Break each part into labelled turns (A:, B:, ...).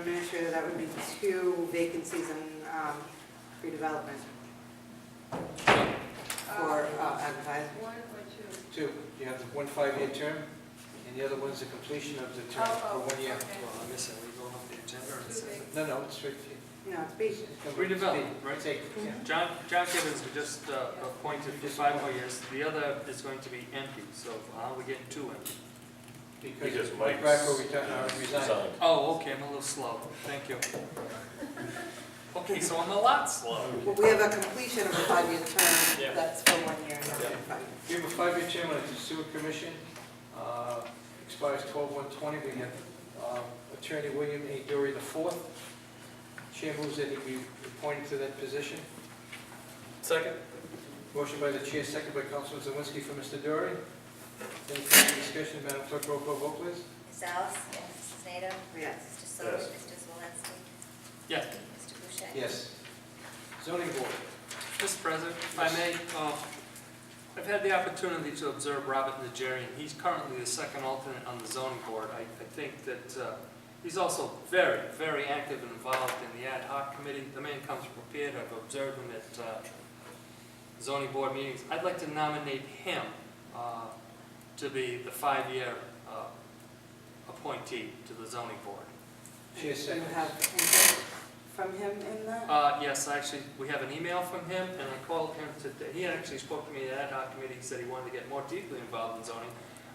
A: administrator, that would be two vacancies in um, redevelopment for uh, advertising.
B: One or two?
C: Two, you have the one five-year term, and the other one's the completion of the term for
B: Oh, oh,
C: one year.
B: okay.
D: Well, I'm missing, are we going off the agenda or
B: Two
D: something?
C: No, no, it's right.
A: No, it's B.
E: Redevelopment, right?
C: Take, yeah.
B: Mm-hmm.
E: John, John Gibbons was just uh, appointed for five more years, the other is going to be empty, so how are we getting two empty?
C: Because
F: Because
C: Mike
F: Mike's.
C: Rocco reti- uh, resigned.
F: resigned.
E: Oh, okay, I'm a little slow, thank you. Okay, so I'm a lot slow.
A: Well, we have a completion of a five-year term,
E: Yeah.
A: that's for one year, not
E: Yeah.
A: five years.
C: We have a five-year term on the sewer commission, uh, expires twelve one twenty. We have um, Attorney William A. Dury the fourth. Chair moves that he be appointed to that position.
D: Second?
C: Motion by the chair, second by Councilman Zawinski for Mr. Dury. Any further discussion, Madam Clerk, roll call vote, please.
G: Ms. Alice? Yes. Mrs. Nato?
A: Yes.
G: Mr. Soli?
F: Yes.
G: Mr. Zalinski?
E: Yes,
G: Mr. Boucher?
C: Yes. Zoning board.
E: Mr. President, if I may, uh, I've had the opportunity to observe Robert Najarian. He's currently the second alternate on the zoning board. I I think that uh, he's also very, very active and involved in the ad hoc committee. The man comes prepared. I've observed him at uh, zoning board meetings. I'd like to nominate him uh, to be the five-year uh, appointee to the zoning board.
C: Chair
A: Do you
C: seconds.
A: have input from him in that?
E: Uh, yes, actually, we have an email from him, and I called him today. He actually spoke to me at ad hoc committee, he said he wanted to get more deeply involved in zoning.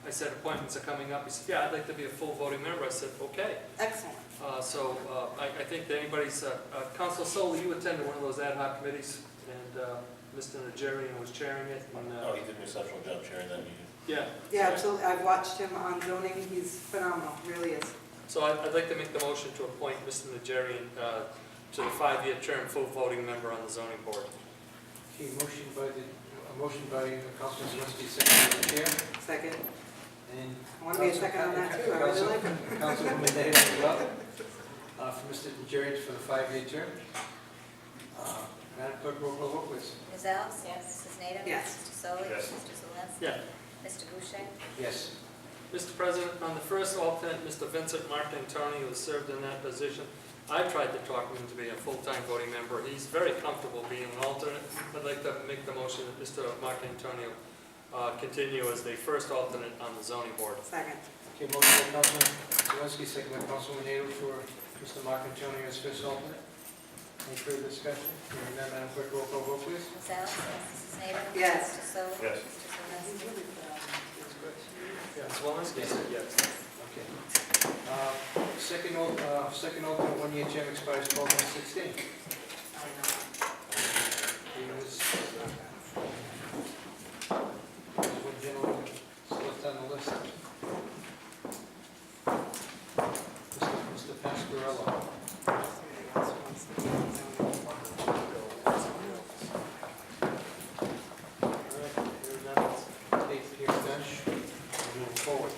E: I said, appointments are coming up. He said, yeah, I'd like to be a full voting member. I said, okay.
A: Excellent.
E: Uh, so, uh, I, I think that anybody's, uh, uh, Council Soli, you attended one of those ad hoc committees, and, uh, Mr. Najarian was chairing it, and,
F: Oh,
E: uh,
F: he did an exceptional job chairing that meeting.
E: yeah.
A: Yeah, absolutely, I've watched him on zoning, he's phenomenal, really is.
E: So I'd, I'd like to make the motion to appoint Mr. Najarian, uh, to the five-year term, full voting member on the zoning board.
C: Okay, motion by the, a motion by uh, Councilman Zawinski, second by the chair.
A: Second,
C: And
A: I want to be a second on that too, I really like him.
C: Councilwoman Davis as well, uh, for Mr. Jerry for the five-year term. Uh, Madam Clerk, roll call vote, please.
G: Ms. Alice? Yes. Mrs. Nato?
A: Yes.
G: Mr. Soli?
F: Yes.
G: Mr. Zalinski?
E: Yeah,
G: Mr. Boucher?
C: Yes.
E: Mr. President, on the first alternate, Mr. Vincent Martintoni, who has served in that position, I tried to talk him to be a full-time voting member. He's very comfortable being an alternate. I'd like to make the motion that Mr. Martintoni uh, continue as the first alternate on the zoning board.
A: Second,
C: Okay, motion by Councilman Zawinski, second by Councilwoman Nato for Mr. Marcantonio as first alternate. Any further discussion? Hearing none, Madam Clerk, roll call vote, please.
G: Ms. Alice? Yes. Mrs. Nato?
A: Yes.
G: Mr. Soli?
F: Yes.
G: Mr. Zalinski?
C: Yeah.
E: Ms. Walensky said yes.
C: Okay. Uh, Second, al- uh, second alternate, one-year term expires twelve one sixteen. There was there was one gentleman left on the list. Mr. Pasquarello. All right, here now, take your bench, move forward.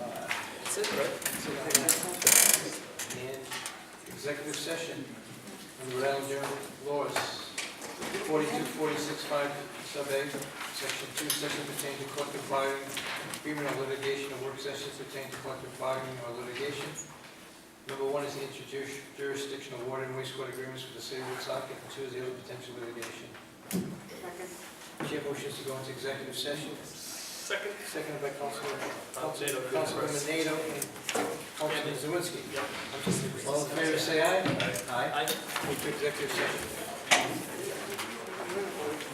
C: Uh,
E: That's it, right?
C: sit down. and executive session under Rhode Island General Laws, 42465 sub A, section 2, section pertaining to collective bargaining, agreement of litigation, and work sessions pertaining to collective bargaining or litigation. Number one is the interjurisdictional water and wastewater agreements with the city of Woonsocket, and two is the other potential litigation.
A: second.
C: Chair motions to go into executive session,
E: Second?
C: seconded by Councilman,
E: Nato.
C: Councilman Nato and Councilman Zawinski.
E: Yep.
C: All in favor, say aye. Aye.
E: Aye.
C: Move to executive session.